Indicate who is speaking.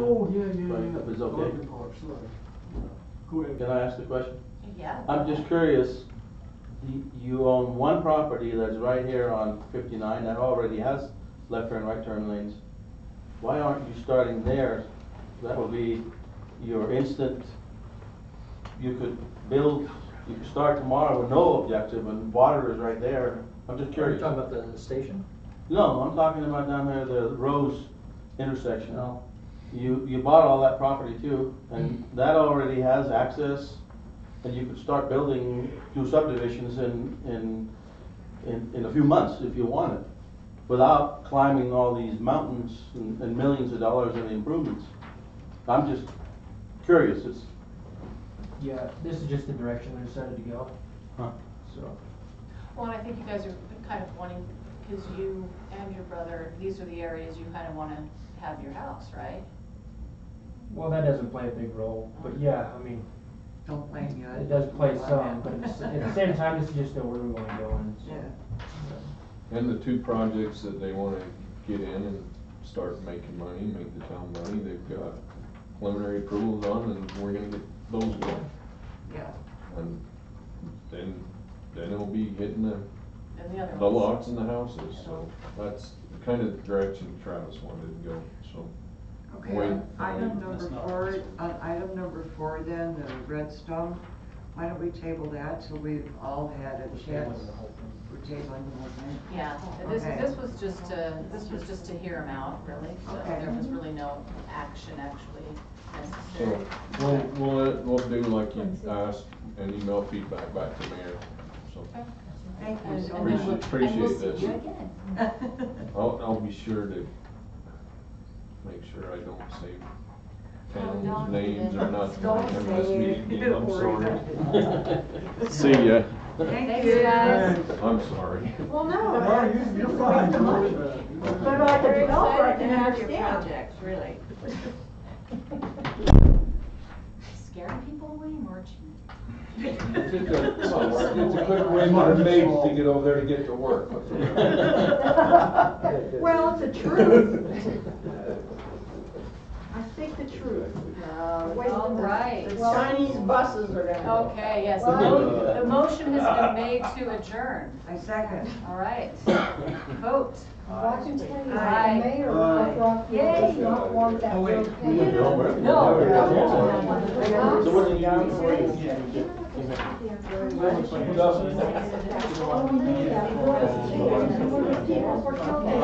Speaker 1: if it's okay.
Speaker 2: Oh, Garden parks, right. Go ahead.
Speaker 1: Can I ask the question?
Speaker 3: Yeah.
Speaker 1: I'm just curious, you, you own one property that's right here on fifty-nine that already has left turn, right turn lanes. Why aren't you starting there? That would be your instant, you could build, you could start tomorrow with no objective and water is right there. I'm just
Speaker 4: Are you
Speaker 1: curious.
Speaker 4: talking about the station?
Speaker 1: No, I'm talking about down there, the Rose intersection. You, you bought all that property too, and that already has access, and you could start building two subdivisions in, in, in, in a few months if you wanted, without climbing all these mountains and and millions of dollars in improvements. I'm just curious, it's,
Speaker 4: Yeah, this is just the direction we decided to go,
Speaker 1: huh,
Speaker 4: so.
Speaker 3: Well, and I think you guys are kind of wanting, because you and your brother, these are the areas you kind of want to have your house, right?
Speaker 4: Well, that doesn't play a big role, but yeah, I mean,
Speaker 5: Don't blame you.
Speaker 4: it does play some, but at the s- at the same time, this is just where we wanna go and so.
Speaker 5: Yeah.
Speaker 6: And the two projects that they wanna get in and start making money, make the town money, they've got preliminary approvals on and we're gonna get those done.
Speaker 5: Yeah.
Speaker 6: And then, then it'll be hitting the,
Speaker 3: And the other
Speaker 6: the
Speaker 3: ones.
Speaker 6: lots and the houses, so that's kind of the direction Travis wanted to go, so.
Speaker 5: Okay,
Speaker 6: Wait.
Speaker 5: on item number
Speaker 1: That's not
Speaker 5: four,
Speaker 1: possible.
Speaker 5: on item number four then, the redstone, why don't we table that till we've all had
Speaker 4: We're
Speaker 5: a
Speaker 4: staying
Speaker 5: chance?
Speaker 4: with the whole thing.
Speaker 5: We're tabling the whole thing.
Speaker 3: Yeah, and this,
Speaker 5: Okay.
Speaker 3: this was just to, this was just to hear them out, really, so
Speaker 5: Okay.
Speaker 3: there was really no action actually necessary.
Speaker 6: So, we'll, we'll, we'll do like you asked and email feedback back to mayor, so.
Speaker 5: Thank you
Speaker 3: And-
Speaker 5: so
Speaker 3: and then we'll-
Speaker 5: much.
Speaker 6: Appreciate-
Speaker 3: and we'll
Speaker 6: appreciate
Speaker 3: see you
Speaker 6: this.
Speaker 3: again.
Speaker 6: I'll, I'll be sure to make sure I don't say
Speaker 3: Oh,
Speaker 6: towns'
Speaker 3: don't
Speaker 6: names
Speaker 3: even.
Speaker 6: or nothing.
Speaker 5: Don't
Speaker 6: I'm just
Speaker 5: say it.
Speaker 6: meeting, I'm
Speaker 5: Don't worry
Speaker 6: sorry.
Speaker 5: about it.
Speaker 6: See ya.
Speaker 5: Thank
Speaker 3: Thanks,
Speaker 5: you.
Speaker 3: guys.
Speaker 6: I'm sorry.
Speaker 3: Well,
Speaker 2: No, you, you're fine.
Speaker 5: But like a
Speaker 3: Very
Speaker 5: developer, I
Speaker 3: excited to
Speaker 5: can
Speaker 3: have your
Speaker 5: understand.
Speaker 3: project, really. Scaring people away, weren't you?
Speaker 6: It's a quick win for the maids to get over there to get to work.
Speaker 5: Well, it's the truth. I speak the truth.
Speaker 3: Uh,
Speaker 5: uh,
Speaker 3: All right.
Speaker 5: Chinese buses are down
Speaker 3: Okay, yes, the mo- the motion has been made to adjourn.
Speaker 5: I second.
Speaker 3: All right. Vote.
Speaker 7: Washington, the
Speaker 5: Aye.
Speaker 7: mayor of Rockville does
Speaker 3: Yay.
Speaker 7: not want that
Speaker 4: Oh, wait.
Speaker 7: road
Speaker 4: We
Speaker 7: paved.
Speaker 1: No, we're-
Speaker 3: No.
Speaker 1: we're-
Speaker 7: Yeah.
Speaker 1: So what did you do before you?
Speaker 7: Oh, yeah, because people were killed.